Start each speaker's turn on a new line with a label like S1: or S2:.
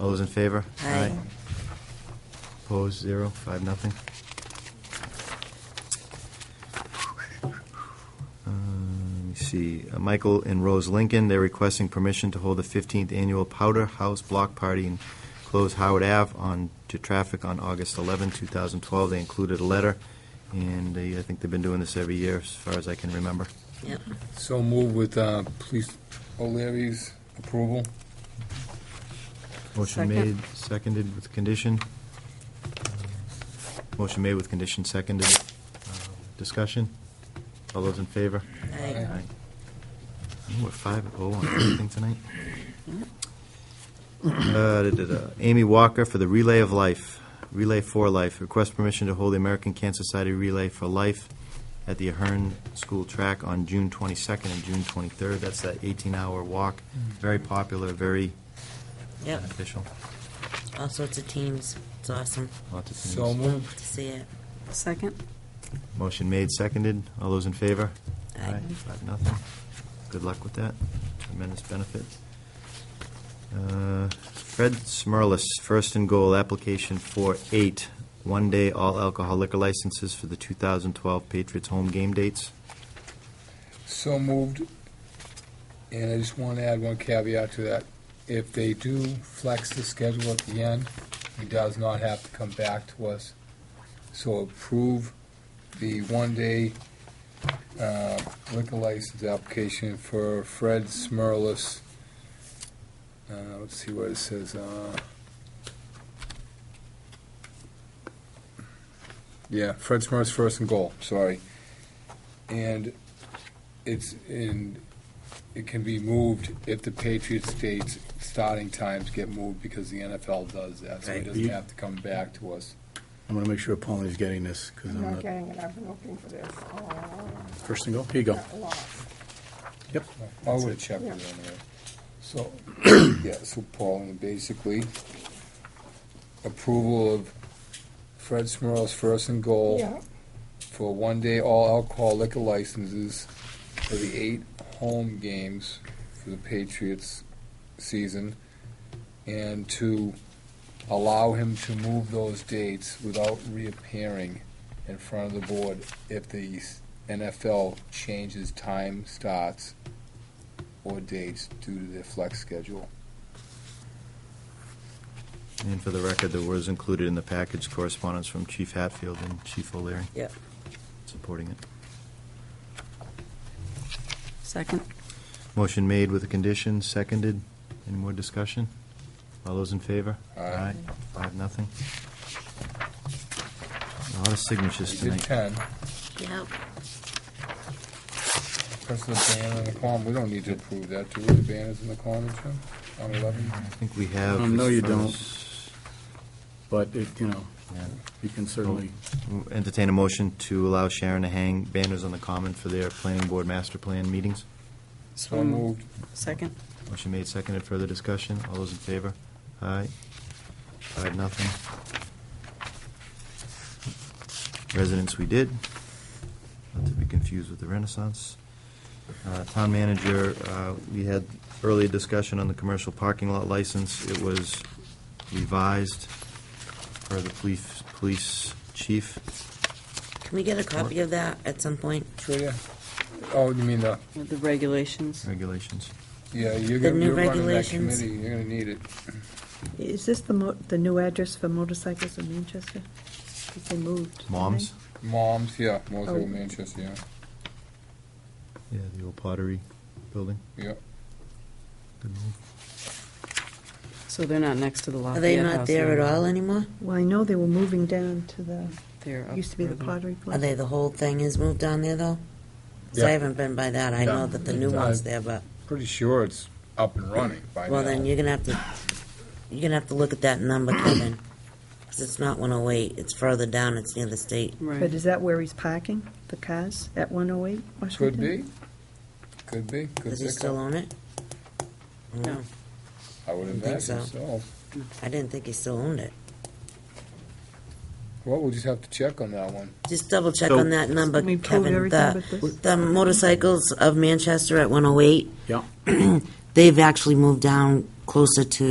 S1: All those in favor?
S2: Aye.
S1: Opposed, zero, five, nothing. Uh, Let me see, Uh, Michael and Rose Lincoln, they're requesting permission to hold the 15th Annual Powder House Block Party and close Howard Ave on, to traffic on August 11, 2012. They included a letter, and they- I think they've been doing this every year, as far as I can remember.
S2: Yep.
S3: So move with uh, Police O'Leary's approval.
S1: Motion
S2: Second.
S1: made, seconded with condition. Motion made with condition, seconded. Uh, Discussion? All those in favor?
S2: Aye.
S3: Aye.
S1: We're five oh on everything tonight. Uh, da-da-da. Amy Walker for the Relay of Life, Relay for Life. Request permission to hold the American Cancer Society Relay for Life at the Ahern School Track on June 22nd and June 23rd. That's that 18-hour walk. Very popular, very
S2: Mm. Yep.
S1: beneficial.
S2: All sorts of teams. It's awesome
S1: Lots of things.
S3: So moved.
S2: to see it.
S4: Second?
S1: Motion made, seconded. All those in favor?
S2: Aye.
S1: Five, nothing. Good luck with that. Tremendous benefit. Uh, Fred Smirlis, first and goal, application for eight, one-day all alcohol liquor licenses for the 2012 Patriots home game dates.
S3: So moved. And I just want to add one caveat to that. If they do flex the schedule at the end, he does not have to come back to us. So approve the one-day uh, liquor license application for Fred Smirlis. Uh, Let's see what it says. uh, Yeah, Fred Smirlis, first and goal, sorry. And it's in, it can be moved if the Patriots dates, starting times get moved because the NFL does that, so he
S5: Right.
S3: doesn't have to come back to us.
S5: I'm going to make sure Pauline's getting this, because
S6: I'm
S5: I'm
S6: not
S5: not,
S6: getting it, I've been looking for this. Oh,
S5: first thing, go, here you go.
S6: got lost.
S5: Yep,
S3: I would have checked it
S6: Yeah.
S3: anyway. So, yeah, so Pauline, basically, approval of Fred Smurl's first and goal
S6: Yeah,
S3: for one-day all alcohol liquor licenses for the eight home games for the Patriots season, and to allow him to move those dates without reappearing in front of the board if the NFL changes time starts or dates due to their flex schedule.
S1: And for the record, there was included in the package correspondence from Chief Hatfield and Chief O'Leary
S2: Yep.
S1: supporting it.
S4: Second?
S1: Motion made with a condition, seconded. Any more discussion? All those in favor?
S3: Aye.
S1: Five, nothing. A lot of signatures
S3: We did
S1: tonight.
S3: ten,
S2: Yep.
S3: press the banner and the column, we don't need to approve that, do we, the banners and the column, Jim, on eleven?
S1: I think we have.
S5: Um, no,
S1: as
S5: you
S1: far
S5: don't.
S1: as-
S5: but it, you know,
S1: yeah.
S5: you can certainly,
S1: Entertain a motion to allow Sharon to hang banners on the common for their planning board master plan meetings.
S3: So moved,
S4: Second?
S1: Motion made, seconded. Further discussion? All those in favor? Aye. Five, nothing. Residents we did, not to be confused with the Renaissance. Uh, Town manager, uh, we had early discussion on the commercial parking lot license. It was revised per the police, police chief.
S2: Can we get a copy of that at some point?
S3: sure, yeah. Oh, you mean the
S4: The regulations.
S1: regulations.
S3: Yeah, you're
S2: The
S3: gonna,
S2: new
S3: you're running that
S2: regulations.
S3: committee, you're gonna need it.
S7: Is this the mo, the new address for motorcycles in Manchester? 'Cause they moved. didn't
S1: Moms?
S3: Moms, yeah, most
S7: Oh.
S3: of Manchester, yeah,
S1: Yeah, the old pottery building.
S3: yeah.
S1: Good move.
S4: So they're not next to the Lafayette
S2: Are
S4: House.
S2: they not there at all anymore?
S7: they? Well, I know they were moving down to the,
S4: They're up
S7: used to be the
S4: further.
S7: pottery
S2: Are
S7: place.
S2: they, the whole thing is moved down there though? 'Cause I
S3: Yeah.
S2: haven't been by that. I know
S3: Yeah.
S2: that the new
S3: Yeah.
S2: one's there, but,
S3: Pretty sure it's up and running by now.
S2: well, then you're gonna have to, you're gonna have to look at that number, Kevin. 'Cause it's not one oh eight. It's further down. It's near the state.
S7: But
S4: Right.
S7: is that where he's parking, the cars, at 108
S3: Could
S7: Washington?
S3: be, could be, could
S2: Does he
S3: pick
S2: still
S3: up.
S2: own it? I don't
S4: No.
S2: know.
S3: I would
S2: think
S3: imagine
S2: so.
S3: so.
S2: I didn't think he still owned it.
S3: Well, we'll just have to check on that one.
S2: Just double check
S1: So-
S2: on that number,
S7: We pulled
S2: Kevin.
S7: everything
S2: The,
S7: but this.
S2: the motorcycles of Manchester at one oh eight,
S5: yeah.
S2: they've actually moved down closer to